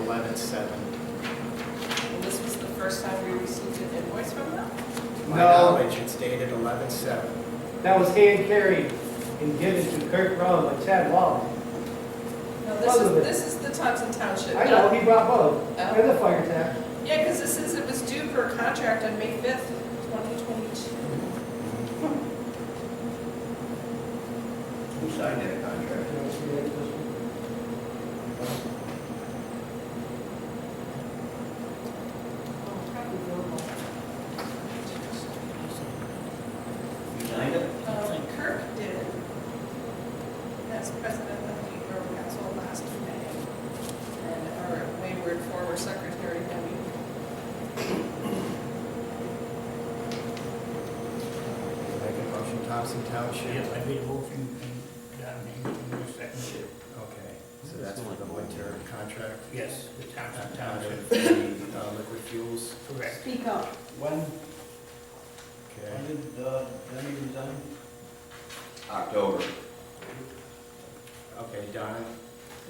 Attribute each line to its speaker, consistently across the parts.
Speaker 1: at seven.
Speaker 2: And this was the first time we received an invoice from them?
Speaker 1: To My
Speaker 3: No.
Speaker 1: knowledge, it's dated eleven seven.
Speaker 3: That was hand carried and given to Kirk Brown by Chad Wallace.
Speaker 2: No, this is,
Speaker 3: Both of it.
Speaker 2: this is the Thompson Township.
Speaker 3: I know, he brought both,
Speaker 2: Oh.
Speaker 3: and the fire tax.
Speaker 2: Yeah, because this is, it was due per contract on May 5th, 2022.
Speaker 4: Who signed that contract? You signed it?
Speaker 2: Um, Kirk did, as president of the Borough Council last May, and our wayward former secretary, Debbie.
Speaker 1: Make a motion, Thompson Township?
Speaker 5: Yes, I made a motion and John made a second.
Speaker 1: Okay, so that's for the winter contract?
Speaker 5: Yes, the
Speaker 1: Out
Speaker 5: Thompson
Speaker 1: of
Speaker 5: Township,
Speaker 1: the uh, liquid fuels?
Speaker 5: correct.
Speaker 2: Speak up.
Speaker 4: When,
Speaker 1: Okay.
Speaker 4: when did, uh, Debbie resign? October.
Speaker 1: Okay, Donna?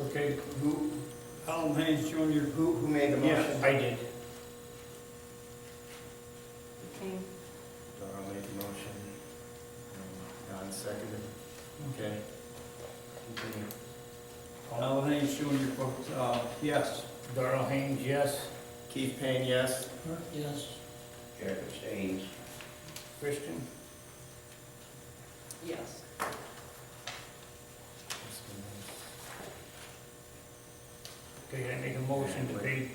Speaker 5: Okay, who, Alan Haynes Jr.,
Speaker 4: Who, who made the
Speaker 5: Yes,
Speaker 4: motion?
Speaker 5: I did.
Speaker 1: Donna made the motion. and Don seconded. Okay. Continue.
Speaker 5: Alan Haynes Jr., votes, uh,
Speaker 4: Yes.
Speaker 5: Darrell Haynes, yes.
Speaker 1: Keith Payne, yes?
Speaker 5: Yes.
Speaker 4: Jack Stains.
Speaker 5: Christian?
Speaker 2: Yes.
Speaker 5: Okay, I make a motion to pay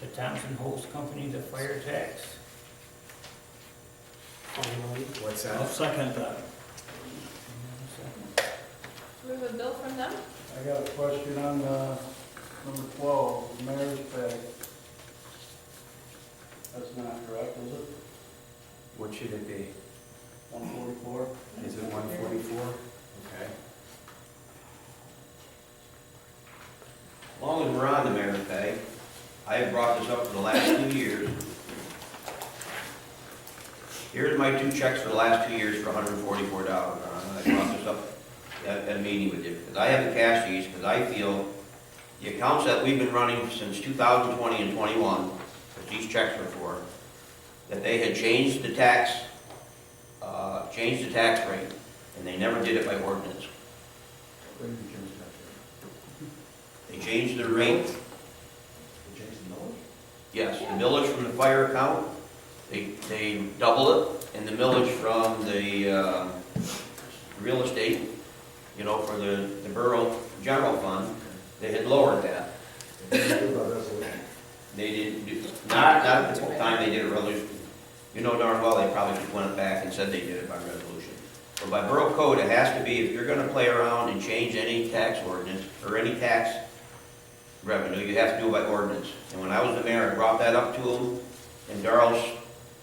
Speaker 5: the Thompson Host Company the fire tax.
Speaker 1: What's
Speaker 6: I'll
Speaker 1: that?
Speaker 6: second that.
Speaker 2: Do we have a bill from them?
Speaker 7: I got a question on, uh, number twelve, the mayor's pay. That's not correct, is it?
Speaker 1: What should it be?
Speaker 7: One forty-four?
Speaker 1: Is it one forty-four? Okay.
Speaker 4: As long as we're on the mayor's pay, I have brought this up for the last two years. Here's my two checks for the last two years for hundred and forty-four dollars, I brought this up at, at a meeting with you, because I haven't cashed these, because I feel the accounts that we've been running since two thousand twenty and twenty-one, that these checks were for, that they had changed the tax, uh, changed the tax rate, and they never did it by ordinance. They changed the rate Yes, the millage from the fire account, they, they double it, and the millage from the, uh, real estate, you know, for the, the borough general fund, they had lowered that. They didn't, do- not, not at the time they did a resolution. You know darn well, they probably just went back and said they did it by resolution. But by borough code, it has to be, if you're gonna play around and change any tax ordinance, or any tax revenue, you have to do it by ordinance. And when I was the mayor, I brought that up to him, and Darrell's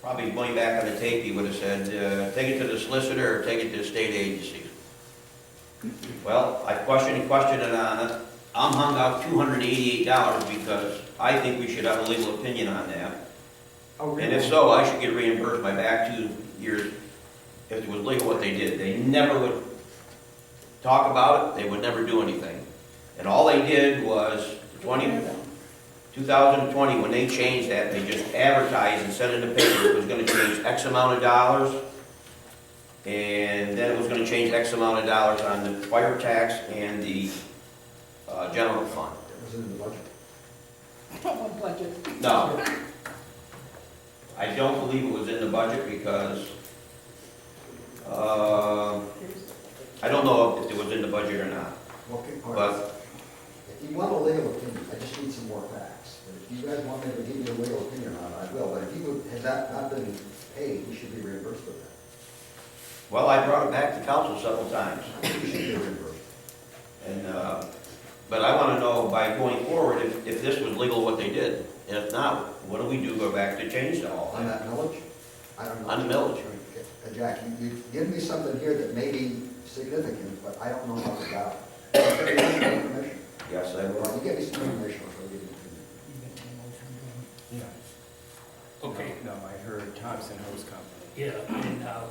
Speaker 4: probably going back on the tape, he would have said, uh, take it to the solicitor or take it to the state agency. Well, I questioned and questioned it on it, I'm hung out two hundred and eighty-eight dollars because I think we should have a legal opinion on that.
Speaker 3: Oh,
Speaker 4: And if so, I should get reimbursed my back two years if it was legal what they did. They never would talk about it, they would never do anything. And all they did was twenty, two thousand and twenty, when they changed that, they just advertised and sent in the paper it was gonna change X amount of dollars. And then it was gonna change X amount of dollars on the fire tax and the, uh, general fund.
Speaker 2: I don't want budget.
Speaker 4: No. I don't believe it was in the budget because, uh, I don't know if it was in the budget or not,
Speaker 8: Okay, all right.
Speaker 4: but
Speaker 8: If you want a legal opinion, I just need some more facts. But if you guys want me to give you a legal opinion on it, I will. But if you would, had that not been paid, you should be reimbursed for that.
Speaker 4: Well, I brought it back to council several times,
Speaker 8: You should be reimbursed.
Speaker 4: and, uh, but I want to know by going forward if, if this was legal what they did. And if not, what do we do, go back to change the law?
Speaker 8: On that millage? I don't know.
Speaker 4: On the millage.
Speaker 8: Uh, Jack, you, you give me something here that may be significant, but I don't know much about it. Information.
Speaker 4: Yes, I
Speaker 8: Well,
Speaker 4: will.
Speaker 8: You give me some information, I'll give you an opinion.
Speaker 1: Yeah.
Speaker 5: Okay,
Speaker 1: No, I heard Thompson Hose Company.
Speaker 5: yeah, and, uh,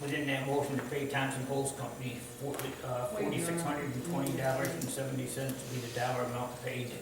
Speaker 5: within that motion to pay Thompson Host Company forty-six hundred and twenty dollars and seventy cents to be the dollar amount paid